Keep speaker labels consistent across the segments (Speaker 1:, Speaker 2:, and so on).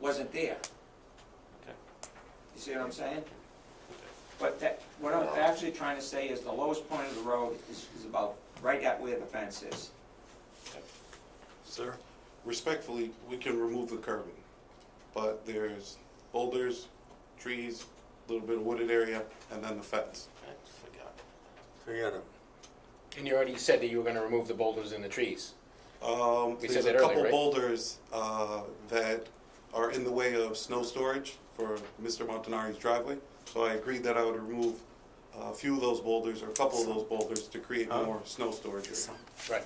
Speaker 1: wasn't there.
Speaker 2: Okay.
Speaker 1: You see what I'm saying? But that, what I'm actually trying to say is the lowest point of the road is, is about right at where the fence is.
Speaker 3: Sir, respectfully, we can remove the curbing, but there's boulders, trees, a little bit of wooded area, and then the fence.
Speaker 2: I forgot.
Speaker 4: Forget it.
Speaker 5: And you already said that you were gonna remove the boulders and the trees.
Speaker 3: Um,
Speaker 5: We
Speaker 3: there's
Speaker 5: said
Speaker 3: a
Speaker 5: that earlier,
Speaker 3: couple
Speaker 5: right?
Speaker 3: boulders, uh, that are in the way of snow storage for Mr. Montanari's driveway. So I agreed that I would remove a few of those boulders or a couple of those boulders to create more snow storage. area.
Speaker 5: Right.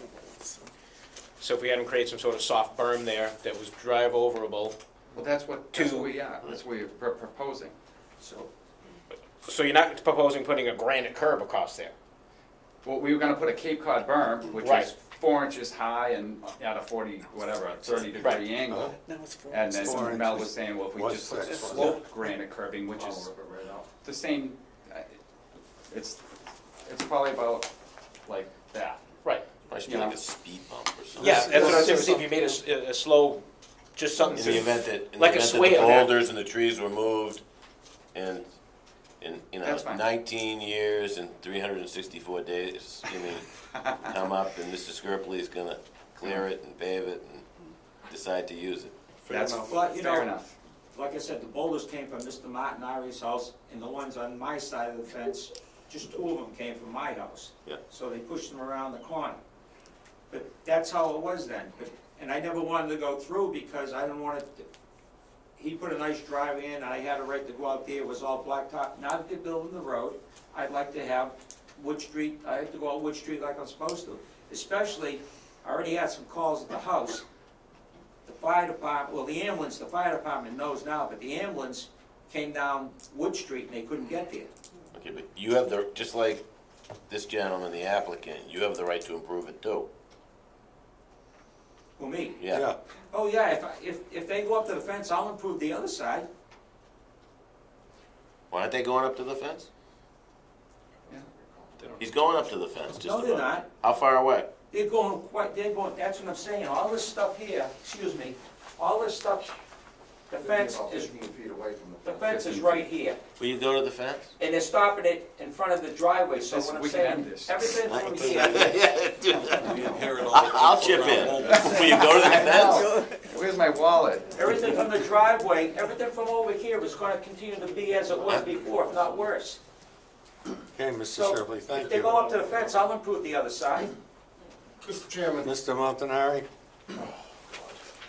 Speaker 5: So if we had them create some sort of soft berm there that was drive overable,
Speaker 6: Well, that's what, that's
Speaker 5: Two.
Speaker 6: what we are, that's what we're pro- proposing.
Speaker 1: So,
Speaker 5: so you're not proposing putting a granite curb across there?
Speaker 6: Well, we were gonna put a Cape Cod berm, which
Speaker 5: Right.
Speaker 6: is four inches high and at a forty, whatever, a thirty
Speaker 5: Right. Uh-huh.
Speaker 6: degree angle.
Speaker 4: No, it's four.
Speaker 6: And
Speaker 4: Four
Speaker 6: then Mel
Speaker 4: inches.
Speaker 6: was saying, well, if we
Speaker 4: Was
Speaker 6: just put
Speaker 4: six.
Speaker 6: slope granite curbing, which is the same, uh, it's, it's probably about like that.
Speaker 5: Right.
Speaker 2: I should be like a speed bump or something.
Speaker 5: Yeah, that's what I was saying,
Speaker 4: This is-
Speaker 5: see if you made a s- a, a slow, just something.
Speaker 2: In the event that, in the
Speaker 5: Like a
Speaker 2: event that the
Speaker 5: swale there.
Speaker 2: boulders and the trees were moved in, in, you know,
Speaker 6: That's fine.
Speaker 2: nineteen years and three hundred and sixty-four days, I mean, come up and Mr. Skirpley is gonna clear it and pave it and decide to use it.
Speaker 3: Fair
Speaker 6: That's
Speaker 3: enough.
Speaker 1: Well, you know-
Speaker 6: fair enough.
Speaker 1: like I said, the boulders came from Mr. Martinari's house, and the ones on my side of the fence, just two of them came from my house.
Speaker 2: Yeah.
Speaker 1: So they pushed them around the corner. But that's how it was then, but, and I never wanted to go through because I didn't want it, to- he put a nice drive in, I had a right to go out there, it was all blacktop, now that they're building the road, I'd like to have Wood Street, I have to go out Wood Street like I'm supposed to. Especially, I already had some calls at the house, the fire department, well, the ambulance, the fire department knows now, but the ambulance came down Wood Street and they couldn't get there.
Speaker 2: Okay, but you have the, just like this gentleman, the applicant, you have the right to improve it too.
Speaker 1: Well, me.
Speaker 2: Yeah,
Speaker 1: Oh, yeah, if, I- if, if they go up to the fence, I'll improve the other side.
Speaker 2: why aren't they going up to the fence?
Speaker 6: Yeah.
Speaker 2: He's going up to the fence, just
Speaker 1: No, they're
Speaker 2: about.
Speaker 1: not.
Speaker 2: How far away?
Speaker 1: They're going quite, they're going, that's what I'm saying, all this stuff here, excuse me, all this stuff, the fence is,
Speaker 7: Fifteen feet away from the
Speaker 1: the
Speaker 7: fence.
Speaker 1: fence is right here.
Speaker 2: Will you go to the fence?
Speaker 1: And they're stopping it in front of the driveway, so
Speaker 6: This-
Speaker 1: what I'm
Speaker 6: we can end
Speaker 1: saying,
Speaker 6: this.
Speaker 1: everything from here,
Speaker 2: Yeah, dude.
Speaker 3: We inherit all the-
Speaker 2: I'll chip in. Will you go to the fence?
Speaker 6: Where's my wallet?
Speaker 1: everything from the driveway, everything from over here is gonna continue to be as it was before, if not worse.
Speaker 4: Okay, Mr.
Speaker 1: So,
Speaker 4: Shipley,
Speaker 1: if
Speaker 4: thank
Speaker 1: they go up
Speaker 4: you.
Speaker 1: to the fence, I'll improve the other side.
Speaker 7: Mr. Chairman,
Speaker 4: Mr. Montanari?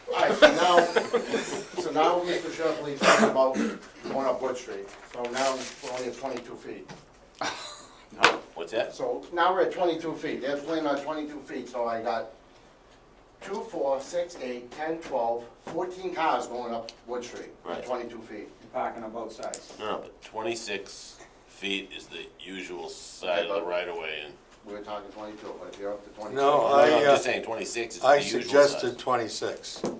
Speaker 7: all right, so now, so now Mr. Shepley's talking about going up Wood Street. So now we're only at twenty-two feet.
Speaker 2: What's that?
Speaker 7: So now we're at twenty-two feet. They're planning on twenty-two feet, so I got two, four, six, eight, ten, twelve, fourteen cars going up Wood Street
Speaker 2: Right.
Speaker 7: at twenty-two feet.
Speaker 1: Parking on both sides.
Speaker 2: No, no, but twenty-six feet is the usual side of the right of way and.
Speaker 7: We were talking twenty-two, but if you're up to twenty-two.
Speaker 4: No,
Speaker 2: No,
Speaker 4: I,
Speaker 2: no, I'm
Speaker 4: uh,
Speaker 2: just saying twenty-six is the
Speaker 4: I
Speaker 2: usual size.
Speaker 4: suggested twenty-six,
Speaker 7: Okay.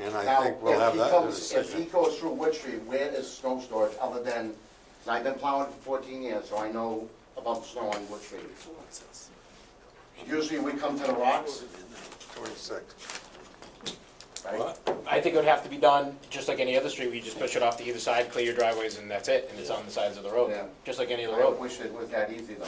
Speaker 4: and I
Speaker 7: Now,
Speaker 4: think we'll
Speaker 7: if
Speaker 4: have
Speaker 7: he
Speaker 4: that in a
Speaker 7: comes- If he
Speaker 4: decision.
Speaker 7: goes through Wood Street, where is snow storage other than, and I've been plowing for fourteen years, so I know about the snow on Wood Street. Usually we come to the rocks,
Speaker 4: Twenty-six.
Speaker 7: right?
Speaker 5: I think it would have to be done, just like any other street, where you just push it off to either side, clear your driveways, and that's it, and it's on the sides of the road,
Speaker 7: Yeah.
Speaker 5: just like any other
Speaker 7: I
Speaker 5: road.
Speaker 7: wish it was that easy though.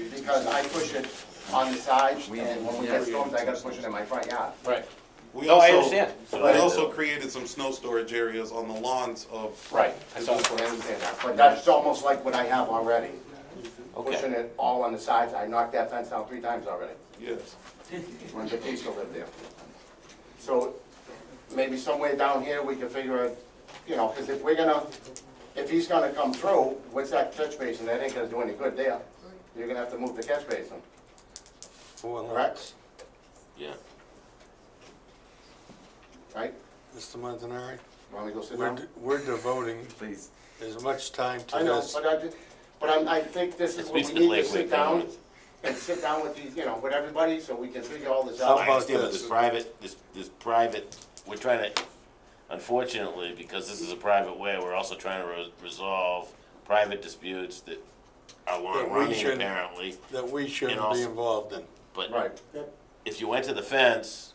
Speaker 7: Because I push it on the side and when we get storms, I gotta push it in my front yard.
Speaker 5: Right,
Speaker 3: We
Speaker 5: No, I
Speaker 3: also-
Speaker 5: understand.
Speaker 3: We
Speaker 2: Right.
Speaker 3: also created some snow storage areas on the lawns of.
Speaker 5: right. I
Speaker 7: I
Speaker 5: saw that.
Speaker 7: understand that, But that's almost like what I have already. Pushing
Speaker 2: Okay,
Speaker 7: it all on the sides. I knocked that fence down three times already.
Speaker 3: Yes.
Speaker 7: when Batista lived there. So maybe somewhere down here, we can figure out, you know, because if we're gonna, if he's gonna come through, what's that catch basin? That ain't gonna do any good there. You're gonna have to move the catch basin,
Speaker 4: Four
Speaker 7: correct?
Speaker 4: lots.
Speaker 2: yeah.
Speaker 7: Right?
Speaker 4: Mr. Montanari,
Speaker 7: Want me to go sit
Speaker 4: we're,
Speaker 7: down?
Speaker 4: d- we're devoting
Speaker 6: Please.
Speaker 4: as much time to
Speaker 7: I know,
Speaker 4: this.
Speaker 7: but I, did- but I'm, I think this is
Speaker 2: It's
Speaker 7: what we
Speaker 2: basically
Speaker 7: need to
Speaker 2: Lakeway
Speaker 7: sit down
Speaker 2: Commons.
Speaker 7: and sit down with these, you know, with everybody, so we can figure all this
Speaker 4: How
Speaker 2: I
Speaker 7: out.
Speaker 4: about
Speaker 2: understand, but
Speaker 4: this?
Speaker 2: this private, this, this private, we're trying to, unfortunately, because this is a private way, we're also trying to re- resolve private disputes that are
Speaker 4: That
Speaker 2: long
Speaker 4: we
Speaker 2: running
Speaker 4: shouldn't-
Speaker 2: apparently.
Speaker 4: That we shouldn't be
Speaker 2: also-
Speaker 4: involved in.
Speaker 2: But
Speaker 7: Right.
Speaker 2: if you went to the fence,